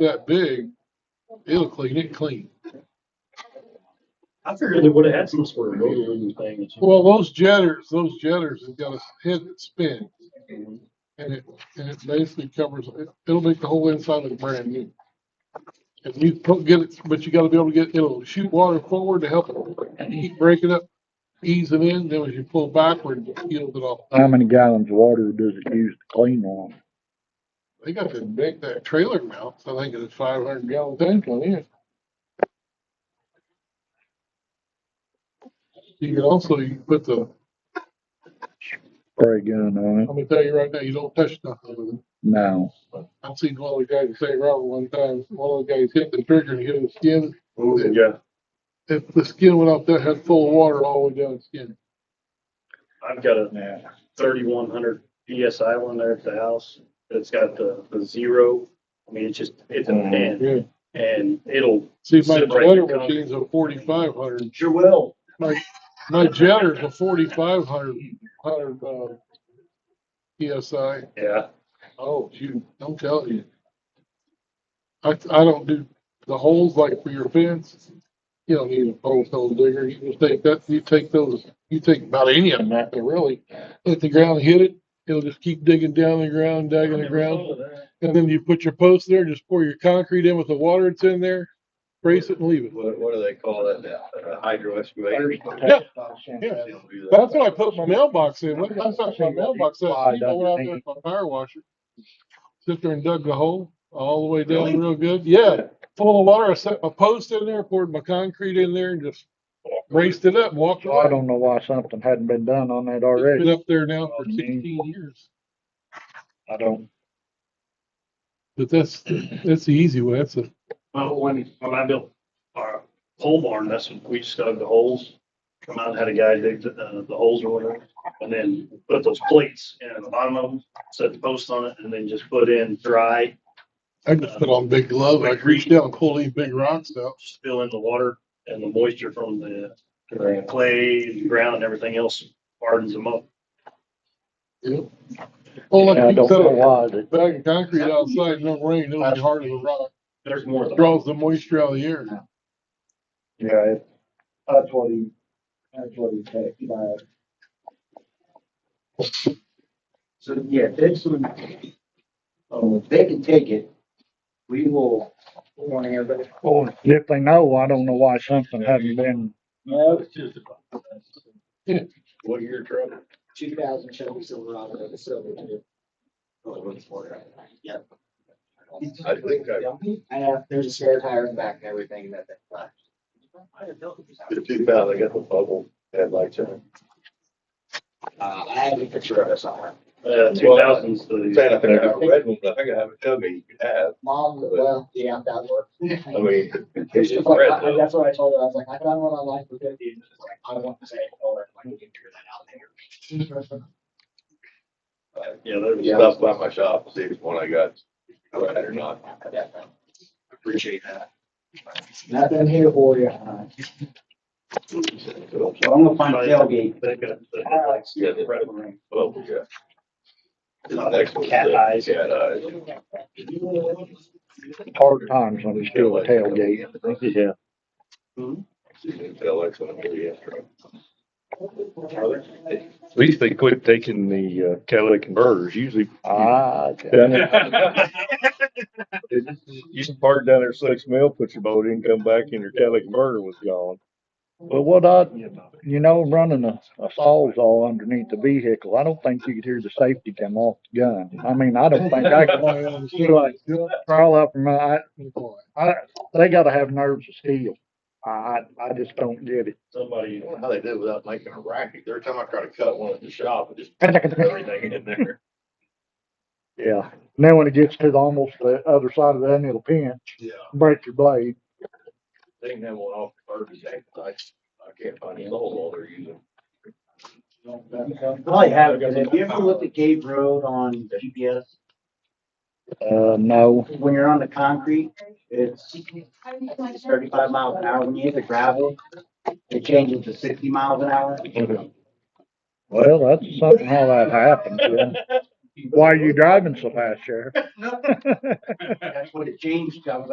that big, it'll clean it clean. I figured they would have had some sort of motor and thing. Well, those jetters, those jetters have got a head that spins. And it, and it basically covers, it- it'll make the whole inside look brand new. And you put, get it, but you gotta be able to get, it'll shoot water forward to help it break it up, ease it in, then when you pull backward, it peels it off. How many gallons of water does it use to clean one? They got to make that trailer mount, so I think it's five hundred gallon tank on it. You can also, you can put the, Spray gun on it? let me tell you right now, you don't touch nothing with it. No. I've seen one of the guys in St. Robert one time, one of the guys hit the trigger and hit his skin. Yeah, If the skin went off, that had full of water all the way down his skin. I've got a thirty-one hundred PSI one there at the house. It's got the, the zero. I mean, it's just, it's a man Yeah. and it'll, See, my Sit right jetter down. machine's a forty-five hundred. sure will. My jetter's a forty-five hundred, hundred, uh, PSI. Yeah, Oh, shoot, don't tell you. I, I don't do the holes like for your fence. You don't need a post hole digger. You just take that, you take those, you take about any of them out there really. Let the ground hit it. It'll just keep digging down the ground, digging the ground. And then you put your post there, just pour your concrete in with the water that's in there, brace it and leave it. What, what do they call that, uh, hydro excavator? Yeah. That's what I put my mailbox in. When I thought my mailbox, that people went out there with my power washer. Sit there and dug the hole all the way down real good. Yeah, full of water. I set my post in there, poured my concrete in there and just braced it up, and walked Well, I away. don't know why something hadn't been done on that It's already. Been up there now for sixteen years, I don't. but that's, that's the easy way. That's a, Well, when, when I built our pole barn, that's when we just dug the holes. Come out, had a guy dig the, uh, the holes or whatever, and then put those plates in the bottom of them, set the post on it, and then just put in dry, I just put on big gloves. I reached down, and pulled these big rocks out. just fill in the water and the moisture from the clay, the ground and everything else hardens them up. Yep. Well, I like Oh, you don't said, know a why that. bag of concrete outside, no rain, it'll be hard as a rock. There's more of them. Draws the moisture out of the air. Yeah, it, that's what he, that's what he takes back. So, yeah, this one, Oh, um, if they can take it, we will warn everybody. Well, if they know, I don't know why something hadn't been, No, it's What year, Trevor? two thousand Chevy Silverado, the silver Oh, too. Yep. I think I, I have, there's a spare tire in the back and everything that they left. the two thousand, I got the bubble headlights in it. Uh, I have a picture of it somewhere. Uh, two thousands, I'm Saying I the, think I have a red one, but I think I have a chubby you could have, Mom, well, yeah, that works. I mean, it's It's just like, red I- I- though. That's what I told her, I was like, I found one online for fifty, and it's like, I don't want to say, oh, I can figure that out later. yeah, there's. Yeah, I'll stop by my shop, and see which one I got, red or not. Definitely. Appreciate that. Nothing here for you. huh? So, So I'm gonna find a tailgate. They got the Alex, Yeah, the red one. bubble, yeah. And the next one's Cat the eyes. Cat eyes. hard times when it's still a tailgate. Yeah. See, they tell us when I'm gonna get drunk. At least they quit taking the uh, catalytic converters. Usually, Ah, you should park down there six mil, put your boat in, come back, and your catalytic converter was gone. well, what I, you know, running a, a sawzall underneath the vehicle, I don't think you could hear the safety come off the gun. I mean, I don't think I Oh, could crawl up from my, I- I, they gotta have nerves of steel. I, I, I just don't get it. Somebody, I don't know how they did it without making a racket, every time I try to cut one at the shop, it just everything in there. Yeah, and then when it gets to the almost the other side of that, and it'll pinch, Yeah. break your blade. They can have one off Kirby's ankle. I, I can't find any hole while they're using. Probably have it, because if you ever look at Gate Road on GPS, Uh, no, when you're on the concrete, it's it's thirty-five miles an hour, when you hit the gravel, it changes to sixty miles an hour. well, that's something how that happens, yeah. Why are you driving so fast, Sheriff? That's what it changed. I was like,